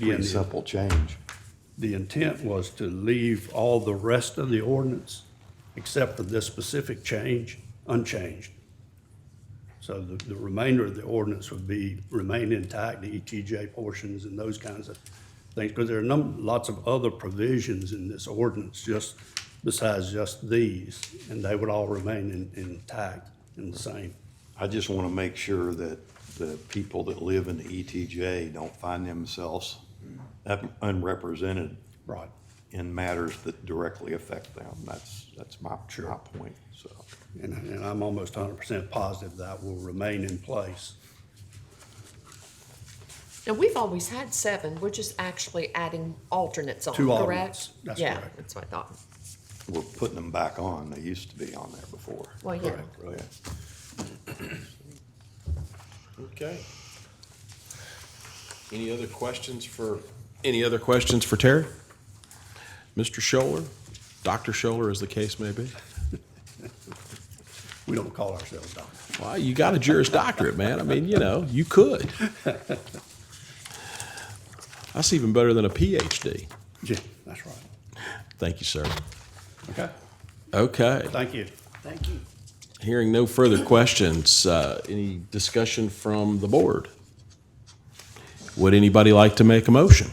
Yeah, pretty the- simple change. The intent was to leave all the rest of the ordinance, except for this specific change, unchanged. So the, the remainder of the ordinance would be, remain intact, the ETJ portions and those kinds of things. Because there are num, lots of other provisions in this ordinance, just, besides just these, and they would all remain in- intact and the same. I just want to make sure that the people that live in the ETJ don't find themselves up- unrepresented Right. in matters that directly affect them. That's, that's my, my point, so. And, and I'm almost hundred percent positive that will remain in place. Now, we've always had seven, we're just actually adding alternates on, Two correct? alternates, that's Yeah, correct. that's what I thought. We're putting them back on. They used to be on there before. Well, yeah. Yeah. Okay. Any other questions for, any other questions for Terry? Mr. Scholler, Dr. Scholler, as the case may be? We don't call ourselves doctors. Well, you got a Juris Doctorate, man. I mean, you know, you could. That's even better than a PhD. Yeah, that's right. Thank you, sir. Okay, Okay. thank you. Thank you. Hearing no further questions, uh, any discussion from the board? Would anybody like to make a motion?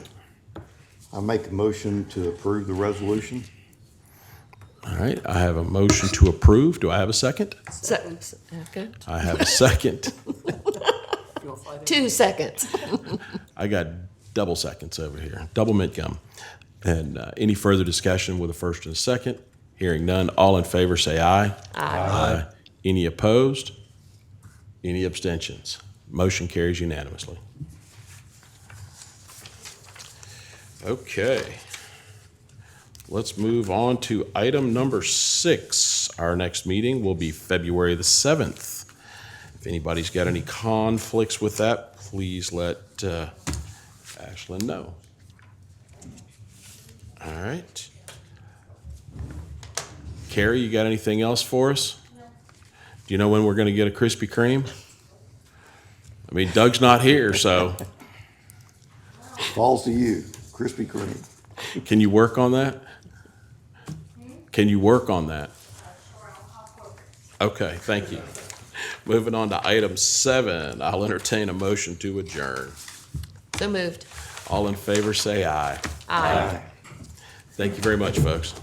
I make a motion to approve the resolution. All right, I have a motion to approve. Do I have a second? So, okay, I have a second. two seconds. I got double seconds over here, double mint gum. And uh, any further discussion with a first and a second? Hearing none, all in favor say aye. Aye. Any opposed? Any abstentions? Motion carries unanimously. Okay. Let's move on to item number six. Our next meeting will be February the 7th. If anybody's got any conflicts with that, please let uh, Ashlyn know. All right. Carrie, you got anything else for us? Do you know when we're going to get a Krispy Kreme? I mean, Doug's not here, so Falls to you, Krispy Kreme. can you work on that? Can you work on that? Okay, thank you. Moving on to item seven, I'll entertain a motion to adjourn. So moved. All in favor, say aye. Aye. Thank you very much, folks.